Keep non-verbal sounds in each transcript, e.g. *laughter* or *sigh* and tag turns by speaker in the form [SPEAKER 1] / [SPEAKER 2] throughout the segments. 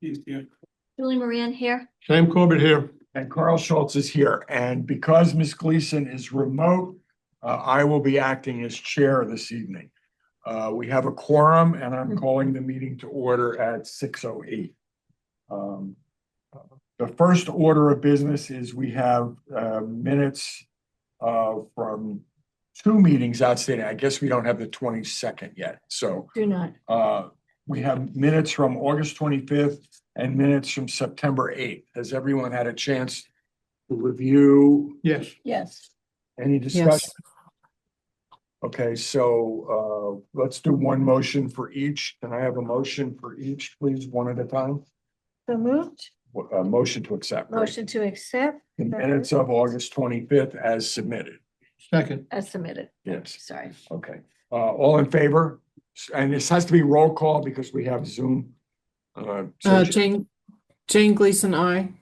[SPEAKER 1] He's here.
[SPEAKER 2] Julie Moran here.
[SPEAKER 3] Sam Corbett here.
[SPEAKER 4] And Carl Schultz is here. And because Ms. Gleason is remote, uh, I will be acting as chair this evening. Uh, we have a quorum and I'm calling the meeting to order at six oh eight. Um, The first order of business is we have, uh, minutes, uh, from two meetings outstanding. I guess we don't have the twenty-second yet, so.
[SPEAKER 2] Do not.
[SPEAKER 4] Uh, we have minutes from August twenty-fifth and minutes from September eighth. Has everyone had a chance to review
[SPEAKER 3] Yes.
[SPEAKER 2] Yes.
[SPEAKER 4] any discussion? Okay, so, uh, let's do one motion for each. Can I have a motion for each, please, one at a time?
[SPEAKER 2] So moved.
[SPEAKER 4] Wha- A motion to accept. right?
[SPEAKER 2] Motion to accept
[SPEAKER 4] The minutes of August twenty-fifth as submitted.
[SPEAKER 3] Second.
[SPEAKER 2] as submitted.
[SPEAKER 4] Yes,
[SPEAKER 2] Sorry.
[SPEAKER 4] okay. Uh, all in favor? S- And this has to be roll call because we have Zoom. Uh,
[SPEAKER 5] Uh,
[SPEAKER 4] so-
[SPEAKER 5] Jane, Jane Gleason, I.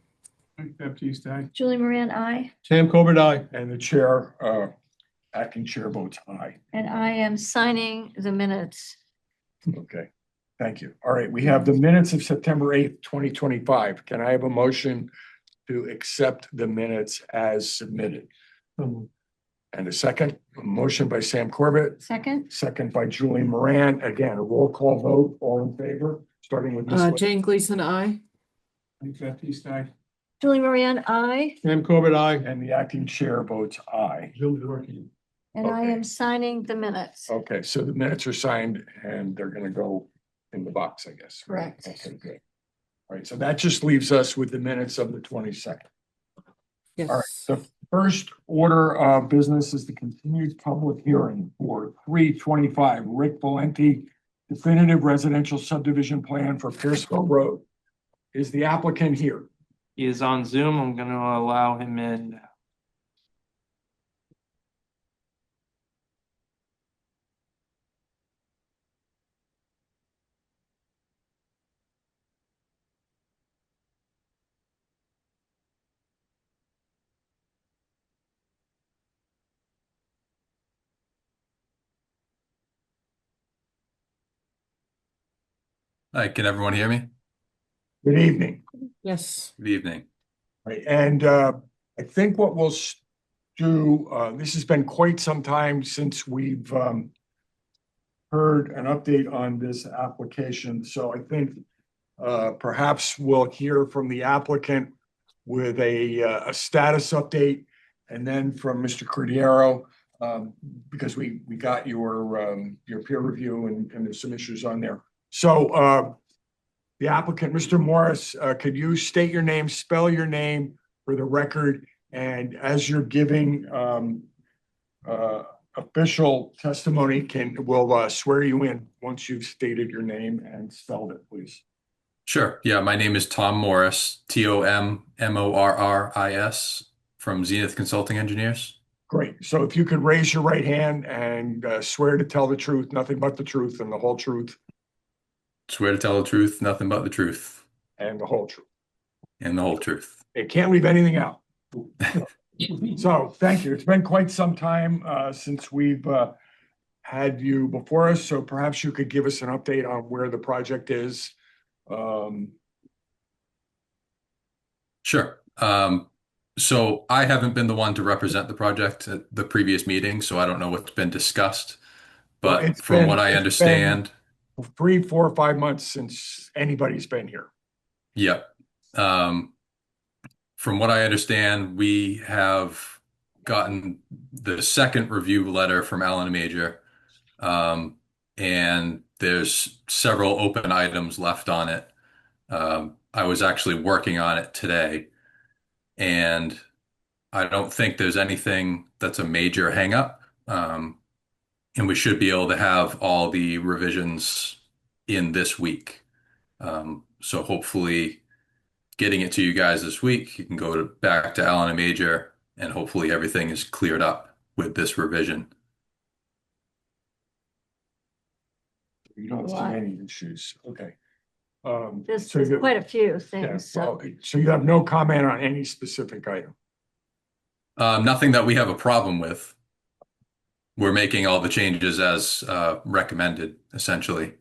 [SPEAKER 1] Mike Baptiste, aye.
[SPEAKER 2] Julie Moran, I,
[SPEAKER 3] Sam Corbett, aye.
[SPEAKER 4] And the chair, uh, acting chair votes aye.
[SPEAKER 2] and I am signing the minutes.
[SPEAKER 4] Okay, thank you. All right, we have the minutes of September eighth, twenty twenty-five. Can I have a motion to accept the minutes as submitted? And a second, a motion by Sam Corbett,
[SPEAKER 2] Second,
[SPEAKER 4] second by Julie Moran. Again, a roll call vote, all in favor, starting with
[SPEAKER 5] Uh,
[SPEAKER 4] Ms. Lin-
[SPEAKER 5] Jane Gleason, I.
[SPEAKER 1] Mike Baptiste, aye.
[SPEAKER 2] Julie Moran, I,
[SPEAKER 3] Sam Corbett, aye.
[SPEAKER 4] And the acting chair votes aye.
[SPEAKER 1] *laughs*
[SPEAKER 3] Zoom's working.
[SPEAKER 2] and I
[SPEAKER 4] Okay.
[SPEAKER 2] am signing the minutes.
[SPEAKER 4] Okay, so the minutes are signed and they're gonna go in the box, I guess. right?
[SPEAKER 2] Correct.
[SPEAKER 4] Okay, good. All right, so that just leaves us with the minutes of the twenty-second. right,
[SPEAKER 5] Yes.
[SPEAKER 4] The first order of business is the continued public hearing for three twenty-five Rick Valenti definitive residential subdivision plan for Pierceville Road. Is the applicant here?
[SPEAKER 6] He is on Zoom. I'm going to allow him in.
[SPEAKER 7] Hi, can everyone hear me?
[SPEAKER 4] Good evening.
[SPEAKER 5] Yes.
[SPEAKER 7] Good evening.
[SPEAKER 4] Right, and uh, I think what we'll s- do, uh, this has been quite some time since we've um. Heard an update on this application, so I think uh, perhaps we'll hear from the applicant. With a uh, a status update and then from Mr. Cordiero. Um, because we we got your um, your peer review and and there's some issues on there. So uh, the applicant, Mr. Morris, uh, could you state your name, spell your name for the record? And as you're giving um, uh, official testimony, can, will uh, swear you in once you've stated your name and spelled it, please.
[SPEAKER 7] Sure. Yeah, my name is Tom Morris, T O M M O R R I S, from Zenith Consulting Engineers.
[SPEAKER 4] Great. So if you could raise your right hand and uh, swear to tell the truth, nothing but the truth and the whole truth
[SPEAKER 7] Swear to tell the truth, nothing but the truth,
[SPEAKER 4] and the whole truth.
[SPEAKER 7] and the whole truth.
[SPEAKER 4] It can't leave anything out. So, thank you. It's been quite some time uh, since we've uh, had you before us, so perhaps you could give us an update on where the project is. Um,
[SPEAKER 7] Sure. Um, so I haven't been the one to represent the project at the previous meeting, so I don't know what's been discussed.
[SPEAKER 4] Well,
[SPEAKER 7] But
[SPEAKER 4] it's
[SPEAKER 7] from
[SPEAKER 4] been-
[SPEAKER 7] what I
[SPEAKER 4] it's been-
[SPEAKER 7] understand,
[SPEAKER 4] Three, four, five months since anybody's been here.
[SPEAKER 7] Yep. Um, from what I understand, we have gotten the second review letter from Alan Major. Um, and there's several open items left on it. Um, I was actually working on it today. And I don't think there's anything that's a major hangup. Um, and we should be able to have all the revisions in this week. Um, so hopefully getting it to you guys this week, you can go to, back to Alan and Major and hopefully everything is cleared up with this revision.
[SPEAKER 4] You don't see
[SPEAKER 2] Lot.
[SPEAKER 4] any issues. Okay. Um,
[SPEAKER 2] There's
[SPEAKER 4] so
[SPEAKER 2] there's
[SPEAKER 4] you-
[SPEAKER 2] quite a few
[SPEAKER 4] yeah,
[SPEAKER 2] things, so
[SPEAKER 4] well, So you have no comment on any specific item?
[SPEAKER 7] Um, nothing that we have a problem with. We're making all the changes as uh, recommended, essentially.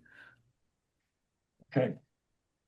[SPEAKER 4] Okay,